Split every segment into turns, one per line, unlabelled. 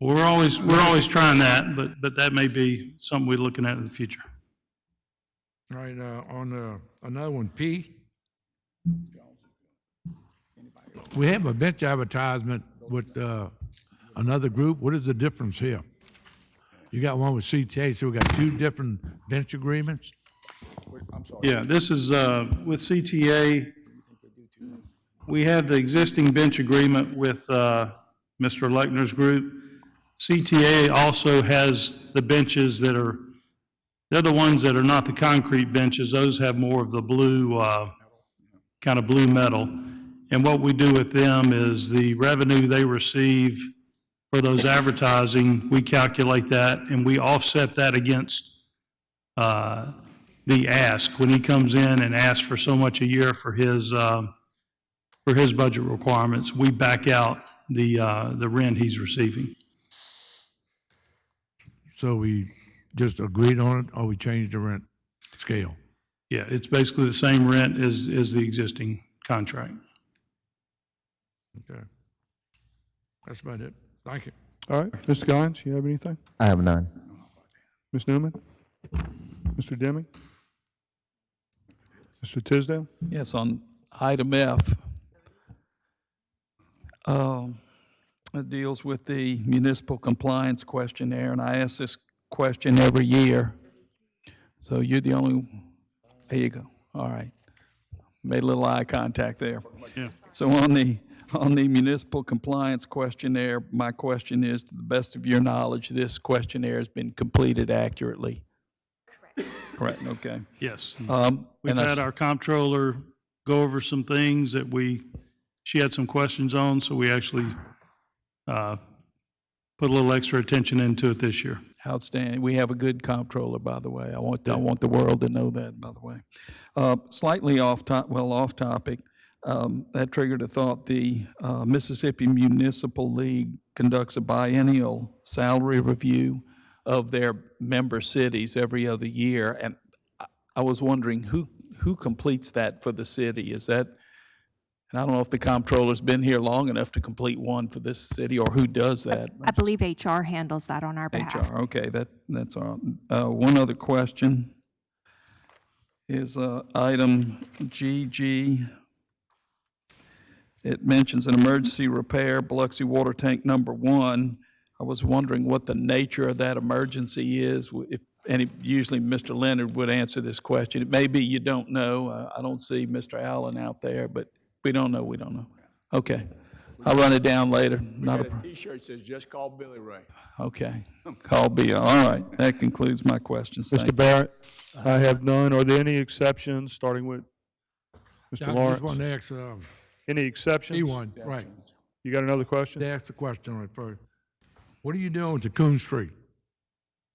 We're always, we're always trying that, but, but that may be something we're looking at in the future.
All right, uh, on, uh, another one, P. We have a bench advertisement with, uh, another group. What is the difference here? You got one with CTA, so we got two different bench agreements?
Yeah, this is, uh, with CTA, we have the existing bench agreement with, uh, Mr. Lechner's group. CTA also has the benches that are, they're the ones that are not the concrete benches, those have more of the blue, uh, kind of blue metal. And what we do with them is the revenue they receive for those advertising, we calculate that, and we offset that against uh, the ask, when he comes in and asks for so much a year for his, um, for his budget requirements, we back out the, uh, the rent he's receiving.
So we just agreed on it, or we changed the rent scale?
Yeah, it's basically the same rent as, as the existing contract.
Okay. That's about it. Thank you.
All right, Mr. Guines, you have anything?
I have none.
Ms. Newman? Mr. Deming? Mr. Tisdale?
Yes, on item F, um, it deals with the municipal compliance questionnaire, and I ask this question every year. So you're the only, there you go, all right. Made a little eye contact there.
Yeah.
So on the, on the municipal compliance questionnaire, my question is, to the best of your knowledge, this questionnaire has been completed accurately? Correct. Correct, okay.
Yes.
Um,
We've
and I s-
had our comptroller go over some things that we, she had some questions on, so we actually uh, put a little extra attention into it this year.
Outstanding. We have a good comptroller, by the way. I want, I want the world to know that, by the way. Uh, Slightly off top, well, off topic, um, that triggered a thought. The uh, Mississippi Municipal League conducts a biennial salary review of their member cities every other year. And I- I was wondering, who, who completes that for the city? Is that, and I don't know if the comptroller's been here long enough to complete one for this city, or who does that?
I believe HR handles that on our behalf.
HR, okay, that, that's all. Uh, One other question is uh, item GG. It mentions an emergency repair, Biloxi Water Tank Number One. I was wondering what the nature of that emergency is, w- if- and it- usually Mr. Leonard would answer this question. It may be you don't know, Uh, I don't see Mr. Allen out there, but we don't know, we don't know. Okay, I'll run it down later, not a problem.
T-shirt says, "Just call Billy Ray."
Okay, call B. All right, that concludes my questions. Thank
Mr. Barrett? I have none. Are there any exceptions, starting with Mr.
I just
Lawrence?
wanted to ask, um,
Any exceptions?
E one, right.
You got another question?
They asked the question right first. What are you doing with the Coon Street?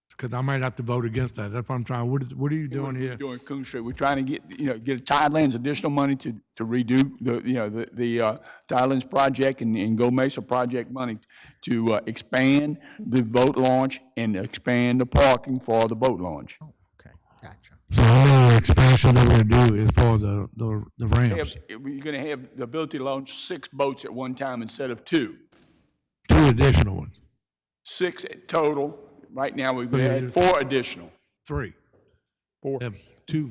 Because I might have to vote against that. That's what I'm trying, what is, what are you doing here?
Doing Coon Street, we're trying to get, you know, get Tidelands additional money to, to redo the, you know, the, the uh, Tidelands project and, and Go Mesa project money to uh, expand the boat launch and expand the parking for the boat launch.
Okay, gotcha.
So all the expansion that we're gonna do is for the, the, the ramps.
If- if You're gonna have the ability to launch six boats at one time instead of two,
Two additional ones,
six total. Right now, we've
Yeah,
had four additional,
three.
Four.
Have two,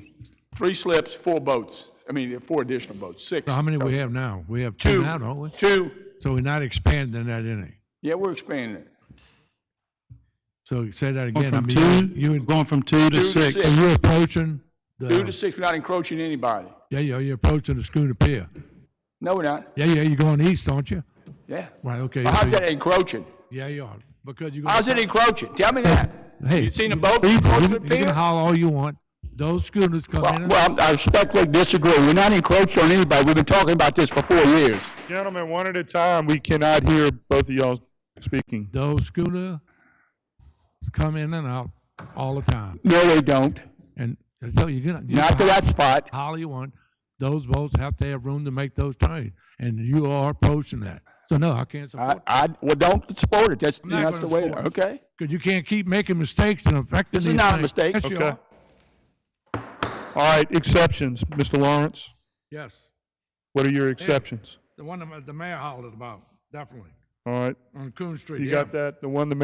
three slips, four boats, I mean, four additional boats, six.
so how many we have now? We have two now, don't we?
Two,
So we're not expanding that any.
yeah, we're expanding it.
So say
Oh,
that
Going
again. I
from
mean, you-
two, you going from two to
Two to
six.
six.
So you're approaching
Two to
the,
six, we're not encroaching anybody.
yeah, yeah, you're approaching the Schooner Pier.
No, we're not.
Yeah, yeah, you're going east, aren't you?
Yeah.
Right, okay.
Well, how's
so-
that encroaching?
Yeah, you are, because you're.
How's it encroaching? Tell me that.
Hey.
You seen a boat
You
across
can you
the
can
pier?
holler all you want. Those schooners come in
Well,
and
well, I respectfully disagree. We're not encroaching on anybody. We've been talking about this for four years.
Gentlemen, one at a time. We cannot hear both of y'all speaking.
those schooners come in and out all the time.
No, they don't.
And so you're gonna, you
Not to
can
that spot.
holler you want. Those boats have to have room to make those turns, and you are approaching that. So no, I can't
I,
support,
I, well, don't support it. That's,
not
that's the
gonna
way,
support it.
okay?
because you can't keep making mistakes and affecting
This
these
is
things.
not a mistake.
Yes, you
Okay.
are.
All right, exceptions. Mr. Lawrence,
Yes,
what are your exceptions?
the one that the mayor hollered about, definitely.
All All right,
on Coon Street.
you
yeah.
got that? The one that